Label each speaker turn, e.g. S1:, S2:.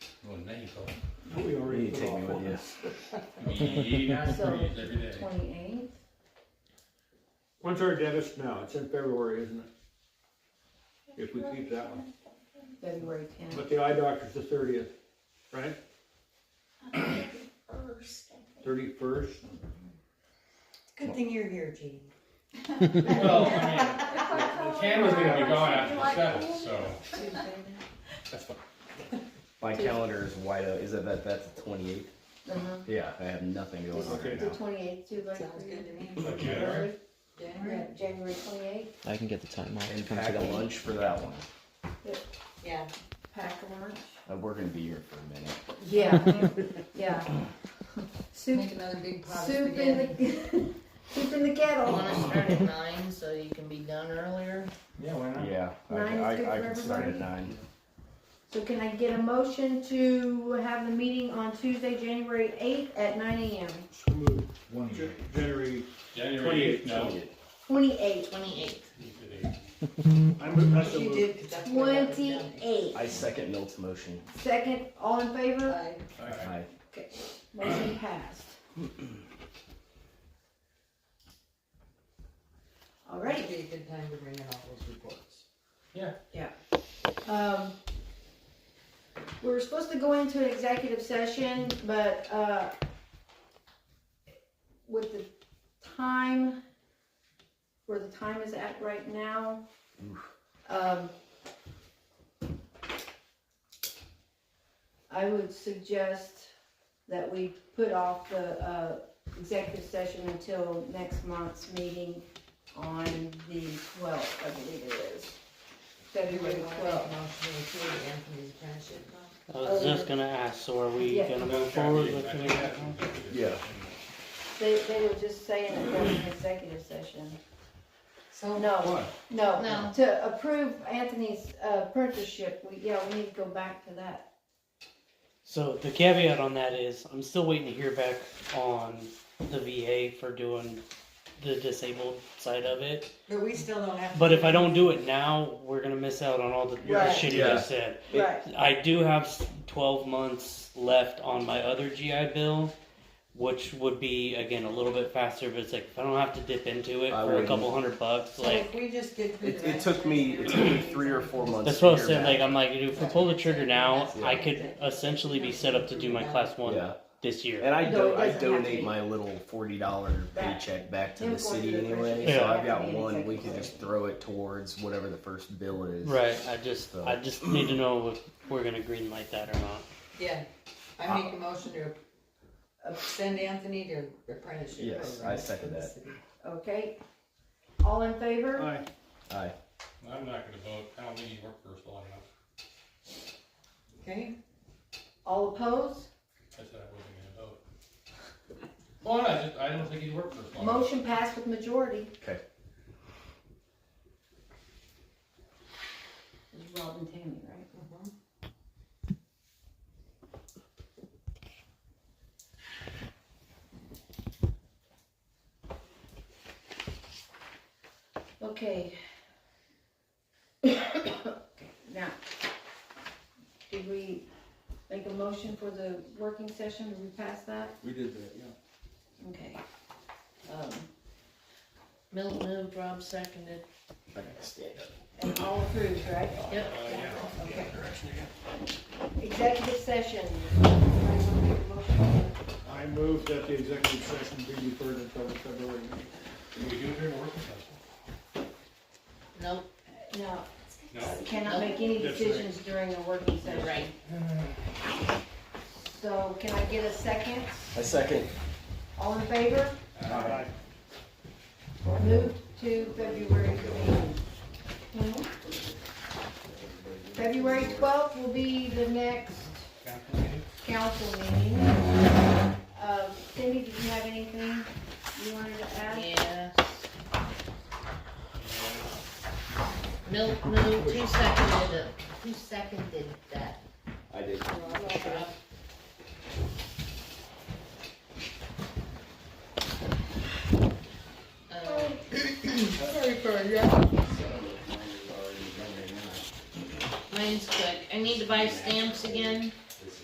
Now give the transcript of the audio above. S1: so.
S2: We
S3: You
S2: already
S3: need to
S2: put
S3: take me
S2: off
S3: with
S2: one.
S3: you.
S1: Yeah,
S4: So,
S1: three is every day.
S4: Twenty-eighth,
S2: When's our debit now? It's in February, isn't it? If we keep that one.
S4: February tenth.
S2: But the eye doctor's the thirtieth, right?
S5: First, I think.
S2: Thirty-first?
S6: Good thing you're here, Jean.
S1: Well, I mean, the camera's gonna be gone after the
S5: Like,
S1: seventh, so.
S2: That's fine.
S3: My
S4: Tuesday.
S3: calendar is wide open. Is it that that's the 28th?
S4: Uh-huh.
S3: Yeah, I have nothing going on
S2: Okay.
S3: right
S4: The
S3: now.
S4: twenty-eighth, too, like.
S6: Sounds good to me.
S1: Like January?
S4: Yeah, January twenty-eighth,
S7: I can get the time off to
S3: And
S7: come
S3: pack
S7: to
S3: a
S7: that.
S3: lunch for that one.
S6: Yeah,
S4: pack a lunch.
S3: Uh, We're gonna be here for a minute.
S4: Yeah, yeah. Soup,
S8: Make another big pot of
S4: soup in
S8: spaghetti.
S4: the, soup in the
S8: You
S4: kettle.
S8: wanna start at nine so you can be done earlier?
S1: Yeah, why not?
S3: Yeah, I,
S4: Nine is good
S3: I, I
S4: for
S3: can start at
S4: everybody?
S3: nine.
S4: So can I get a motion to have the meeting on Tuesday, January eighth at nine AM?
S2: So moved.
S1: One
S2: Ja-
S1: year.
S2: January,
S1: January
S2: 28th.
S1: eighth, no.
S4: Twenty-eight.
S8: Twenty-eighth.
S2: I'm, I so
S6: she
S2: moved.
S6: did, 'cause that's what I wrote down.
S4: Twenty-eight.
S3: I second Milt's motion.
S4: Second, all in favor?
S6: Aye.
S1: Alright.
S3: Aye.
S4: Motion passed. All
S6: That'd
S4: right,
S6: be a good time to bring in all those reports.
S4: um, we were supposed to go into an executive session, but, uh, with the time, where the time is at right now, um, I would suggest that we put off the, uh, executive session until next month's meeting on the twelfth, I believe it is. February twelfth.
S6: Anthony's apprenticeship.
S7: I was just gonna ask, so are we
S4: Yeah.
S7: gonna move
S1: That's gotta
S7: forward
S1: be-
S7: with
S1: I
S7: the
S1: think that's an executive
S3: Yeah.
S1: session.
S4: They, they were just saying that that's an executive session.
S8: So
S4: No, no,
S8: No.
S4: to approve Anthony's uh, apprenticeship, we, yeah, we need to go back to that.
S7: So the caveat on that is, I'm still waiting to hear back on the VA for doing the disabled side of it.
S6: But we still don't have. to-
S7: But if I don't do it now, we're gonna miss out on all the, the
S4: Right.
S7: shit you
S3: Yeah.
S7: just said.
S3: It-
S4: Right,
S7: I do have s- 12 months left on my other GI Bill, which would be again a little bit faster. But it's like if I don't have to dip into it
S3: I
S7: for a
S3: wouldn't.
S7: couple hundred bucks,
S6: So
S7: like
S6: if we just get through
S3: It,
S6: the
S3: it
S6: rest
S3: took
S6: of
S3: me,
S6: it,
S3: it took me three or four months.
S7: That's
S3: to
S7: what I'm
S3: hear
S7: saying.
S3: back.
S7: Like, I'm like, dude, if I pull the trigger now,
S6: Yeah.
S7: I could essentially be set up to do my class one
S3: Yeah,
S7: this year.
S3: and I
S4: No, it
S3: do, I
S4: doesn't have to be.
S3: donate my little forty dollar
S4: That-
S3: paycheck back to
S4: Him
S3: the
S4: going to
S3: city
S4: the
S3: anyway,
S4: friendship
S3: so
S4: Yeah.
S3: I've got
S4: has to be an
S3: one, we
S4: executive
S3: can just throw it towards whatever the first bill is.
S7: Right. I just,
S3: So-
S7: I just need to know if we're gonna green light that or not.
S6: Yeah, I make a motion to uh, send Anthony to apprenticeship.
S3: Yes,
S6: program
S3: I second
S6: for the
S3: that.
S6: city.
S4: okay. All in favor?
S2: Aye.
S3: Aye.
S1: I'm not gonna vote, I don't think you work for us long enough,
S6: Okay,
S4: All opposed?
S1: I said I wasn't gonna vote. Well, I just, I don't think you work for us long enough.
S4: Motion passed with majority.
S3: Okay.
S4: It's Rob and Tammy, right? Mm-hmm. Okay. Now, did we make a motion for the working session? Did we pass that?
S2: We did that, yeah.
S4: Okay. Um,
S8: Milt moved, Rob seconded.
S4: And all approved, right?
S8: Yep.
S1: Uh, yeah.
S4: Okay. Executive session.
S2: I moved that the executive session be deferred until the February meeting.
S1: Can we do it during a working session?
S8: Nope,
S4: No,
S1: No?
S4: cannot make any
S2: That's right.
S4: decisions during a working
S8: you're
S4: session.
S8: right.
S4: So can I get a second?
S3: I second.
S4: All in favor?
S1: Aye.
S4: Move to February meeting. February twelfth will be the next
S1: Council meeting?
S4: council meeting. Uh, Cindy, did you have anything you wanted to add?
S8: Yes. Milt moved, who seconded it? Who seconded that?
S3: I did.
S8: Uh, Mine's quick. I need to buy stamps again.